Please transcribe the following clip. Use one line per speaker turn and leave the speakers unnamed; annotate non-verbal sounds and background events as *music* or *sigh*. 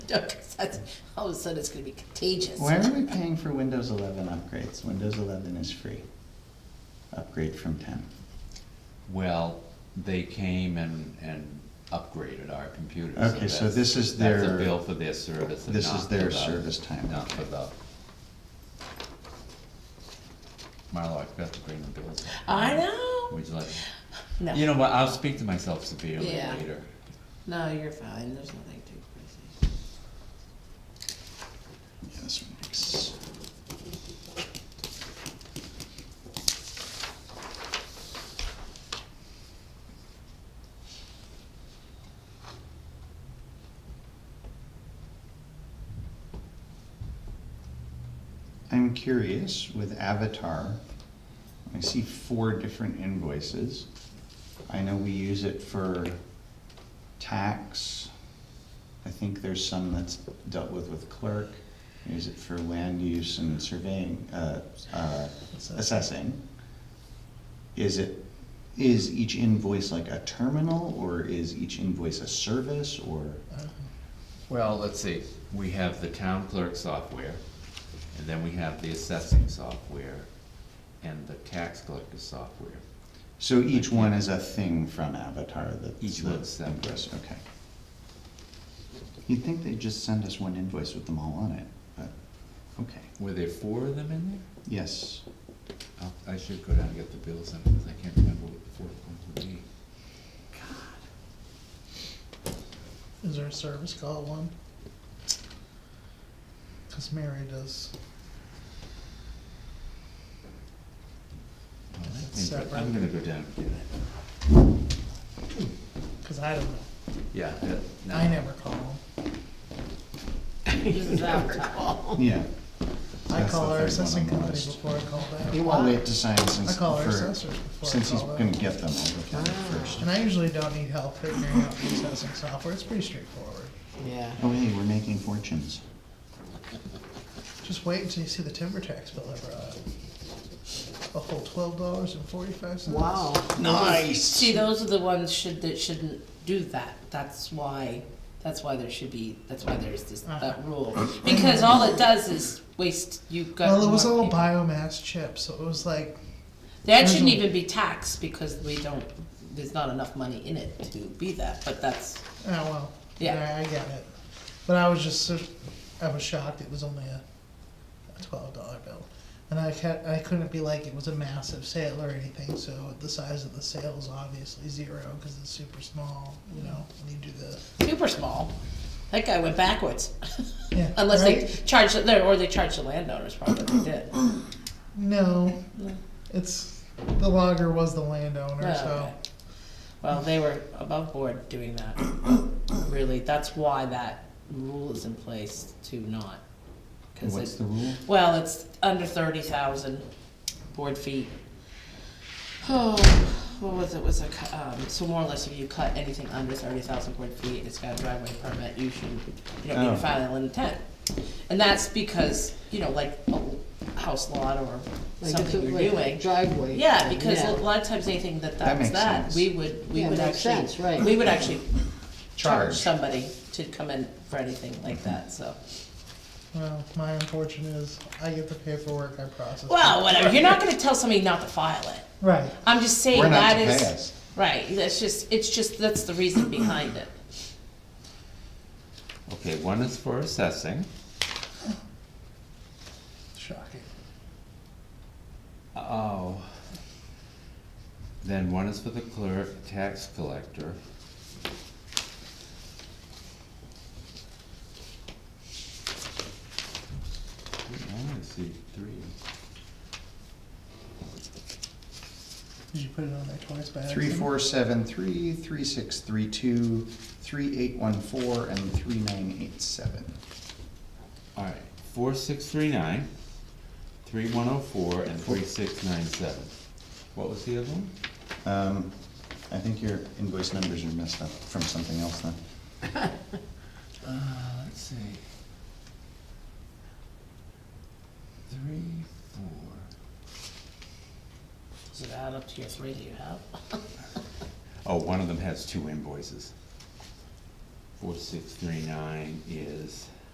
No, 'cause that's, all of a sudden it's gonna be contagious.
Why are we paying for Windows eleven upgrades? Windows eleven is free. Upgrade from ten.
Well, they came and, and upgraded our computers.
Okay, so
that's-
this is
That's
their-
a bill for their service and
this
not
is
for
their
the-
service time,
Not for
okay.
the. Marlo, I forgot to bring the bills.
I know.
Would you like,
No.
you know what, I'll speak to myself severely
Yeah.
later.
No, you're fine, there's nothing too crazy.
Yeah, this one makes- I'm curious with Avatar, I see four different invoices. I know we use it for tax. I think there's some that's dealt with with clerk, use it for land use and surveying, uh, uh, assessing. Is it, is each invoice like a terminal, or is each invoice a service, or?
Well, let's see, we have the town clerk software, and then we have the assessing software, and the tax collector software.
So each one is a thing from Avatar that's.
Each
the
one's separate.
invoice, Okay. You'd think they'd just send us one invoice with them all on it, but, okay,
Were there four of them in there?
yes.
I'll- I should go down and get the bills in, because I can't remember what the fourth ones would be.
Is there a service call one? Cause Mary does,
Well, I
It's
think-
separate.
I'm gonna go down and get it.
cause I don't know,
Yeah. uh, no.
I never call them.
This is Avatar.
Yeah.
I
That's the
call
third one
our
on
assessing
the
company
list.
before I call back.
He won't wait to sign since,
I call our
for-
assessors before I
since he's
call Ah.
gonna
them.
get them, I'll look at it first.
And I usually don't need help figuring out the assessing software, it's pretty straightforward.
Yeah.
Oh, hey, we're making fortunes.
Just wait until you see the timber tax bill I brought up. A whole twelve dollars and forty-five cents.
Wow.
Nice.
See, those are the ones should, that shouldn't do that. That's why, that's why there should be, that's why there's this, that rule. Because all it does is waste, you've got.
Well, it was
more
all
people.
biomass chips, so it was like,
That shouldn't
original-
even be taxed because we don't, there's not enough money in it to be that, but that's,
oh, well,
Yeah.
yeah, I get it. But I was just, sur- I was shocked, it was only a, a twelve dollar bill. And I kept, I couldn't be like it was a massive sale or anything, so the size of the sale is obviously zero, cause it's super small, you know, when you do the,
super small. That guy went backwards.
yeah,
Unless they
right?
charged, the- or they charged the landowners, probably they
*clears throat*
did.
No,
No.
it's, the logger was the landowner,
Yeah,
so.
okay. Well, they were above board doing that. Really, that's why that rule is in place to not. 'cause
What's
it-
the rule?
Well, it's under thirty thousand board feet. Oh, what was it, was a, cu- um, so more or less if you cut anything under thirty thousand board feet, it's got a driveway permit, you should, you don't need
Oh.
to file an intent. And that's because, you know, like a house lot or
Like if
something
it-
you're
like
doing.
Driveway.
Yeah, because a
Yeah.
lot of times anything that
That
that's
makes
that,
sense.
we would, we
Yeah,
would
makes sense,
actually,
right.
we would actually charge
Charge.
somebody to come in for anything like that, so.
Well, my unfortunate is I get the paperwork I process.
Well, whatever, you're not gonna tell somebody not to file it.
Right.
I'm just saying
We're not
that
to
is.
pay us.
Right, that's just, it's just, that's the reason behind it.
Okay, one is for assessing,
Shocking.
oh. Then one is for the clerk, tax collector. Hmm, I only see three.
Did you put it on there twice by accident?
Three, four, seven, three, three, six, three, two, three, eight, one, four, and three, nine, eight, seven.
All right, four six three nine, three one oh four, and three six nine seven. What was the other one?
Um, I think your invoice numbers are messed up from something else then.
Uh, let's see. Three, four.
Does it add up to your three that you have?
Oh, one of them has two invoices. Four six three nine is